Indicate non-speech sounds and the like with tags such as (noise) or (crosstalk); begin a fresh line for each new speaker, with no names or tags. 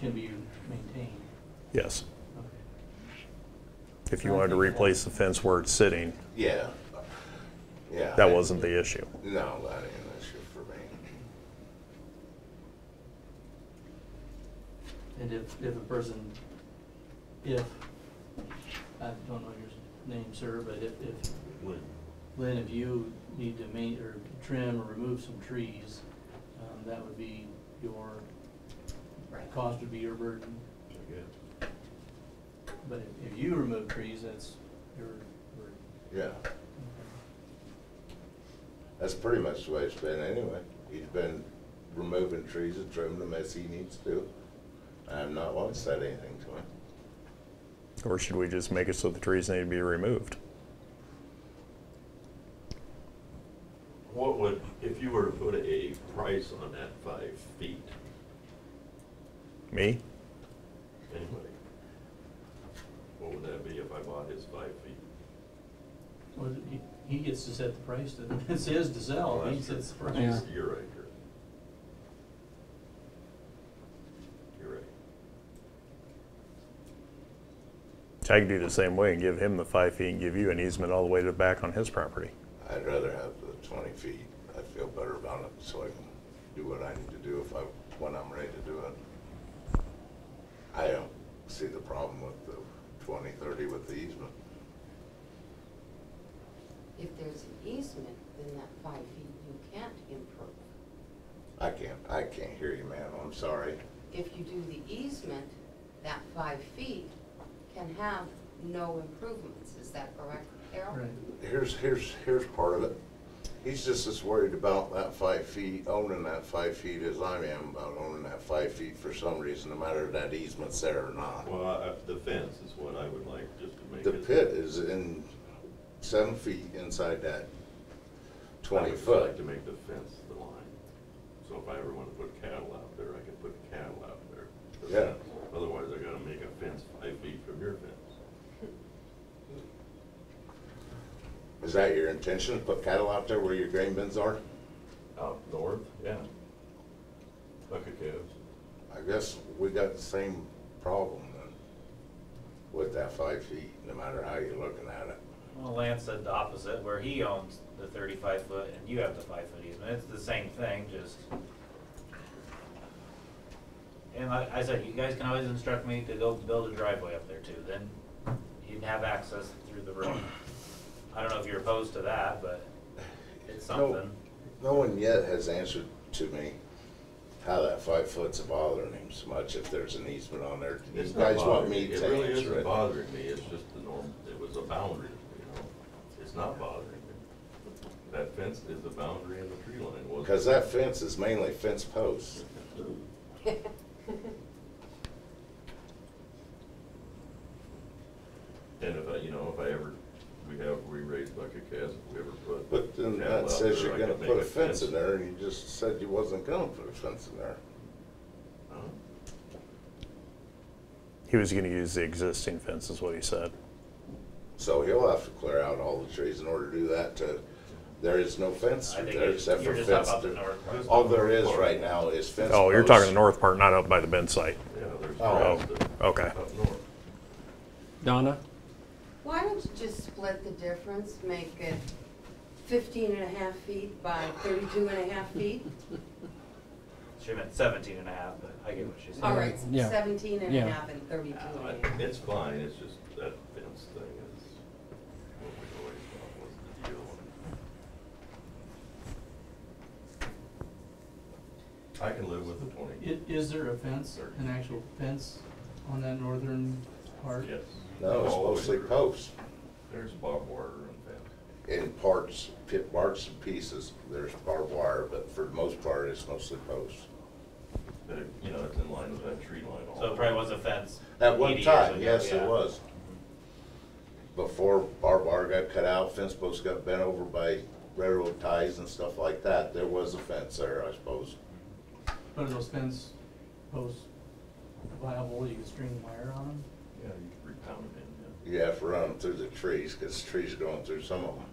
can be maintained.
Yes.
Okay.
If you wanted to replace the fence where it's sitting,
Yeah. Yeah.
that
I-
wasn't the issue.
No, that ain't an issue for me.
And if, if a person, if, I don't know your name, sir, but if, if,
Would,
Lynn, if you need to ma- or trim or remove some trees, um, that would be your,
Right.
cost would be your burden.
I guess.
But if, if you remove trees, that's your burden.
Yeah,
Okay.
that's pretty much the way it's been anyway. He's been removing trees and trimming them as he needs to. I've not once said anything to him.
Or should we just make it so the trees need to be removed?
What would, if you were to put a price on that five feet,
Me?
anybody? What would that be if I bought his five feet?
Well, he, he gets to (laughs) set the price, doesn't he? it's his to sell, he sets the price.
You're right, Chris. You're right.
So I could do the same way and give him the five feet and give you an easement all the way to the back on his property.
I'd rather have the twenty feet. I feel better about it, so I can do what I need to do if I, when I'm ready to do it. I don't see the problem with the twenty, thirty with the easement.
If there's an easement, then that five feet you can't improve.
I can't, I can't hear you, ma'am, I'm sorry.
If you do the easement, that five feet can have no improvements, is that correct, Carol?
Right.
here's, here's, here's part of it. He's just as worried about that five feet, owning that five feet as I am about owning that five feet for some reason, no matter if that easement's there or not.
Well, I- the fence is what I would like, just to make it.
The pit is in seven feet inside that
I
twenty
would
foot.
like to make the fence the line. So if I ever want to put cattle out there, I can put cattle out there. the
Yeah.
fence. Otherwise, I gotta make a fence five feet from your fence.
Is that your intention, to put cattle out there where your grain bins are?
Out north? Yeah. Bucket calves.
I guess we got the same problem then with that five feet, no matter how you're looking at it.
Well, Lance said the opposite, where he owns the thirty-five foot and you have the five foot easement, it's the same thing, just. And like I said, you guys can always instruct me to go build a driveway up there too, then you'd have access through the road. I don't know if you're opposed to that, but it's
No.
something.
No one yet has answered to me how that five foot's bothering him so much if there's an easement on there. You
It's not
guys want
bothering
me
It
to
really
answer
isn't
it?
bothering me, it's just the norm, it was a boundary, you know? It's not bothering me. That fence is the boundary and the tree line was.
Because that fence is mainly fence posts.
And if I, you know, if I ever, we have, we raise bucket calves, if we ever put.
But then
cattle
that
out
says
there,
you're
I
gonna
could
put
make
a fence in there and you just said you wasn't gonna put a fence in there.
Huh?
He was going to use the existing fence, is what he said.
So he'll have to clear out all the trees in order to do that to, there is no fence
I
through
think
there except for
you're just talking
fence.
about the
through-
north part.
All there is right now is fence posts.
Oh, you're talking the north part, not up by the bend site.
Yeah, there's.
Oh,
grass that-
okay.
Up north.
Donna,
(laughs) Why don't you just split the difference, make it 15 and a half feet by 32 and a half feet?
(laughs)
She meant seventeen and a half, but I get what she's saying.
All right,
Yeah.
17 and a
Yeah.
half and 32
Uh,
and a half.
It's fine, it's just that fence thing is what we always thought was the deal. I can live with the twenty.
I- Is there a fence, an actual fence on that northern part?
Yes.
No, it's mostly posts.
There's barbed wire and fence.
in parts, pit parts and pieces. There's barbed wire, but for the most part, it's mostly posts.
But, it- you know, it's in line with that tree line all.
So it probably was a fence.
At one
80 years
time,
ago,
yes, it
yeah.
was. Before barbed wire got cut out, fence posts got bent over by railroad ties and stuff like that, there was a fence there, I suppose.
But are those fence posts viable, you can string wire on them?
Yeah, you could re-pound it in, yeah.
You have to run them through the trees, because trees are going through some of them.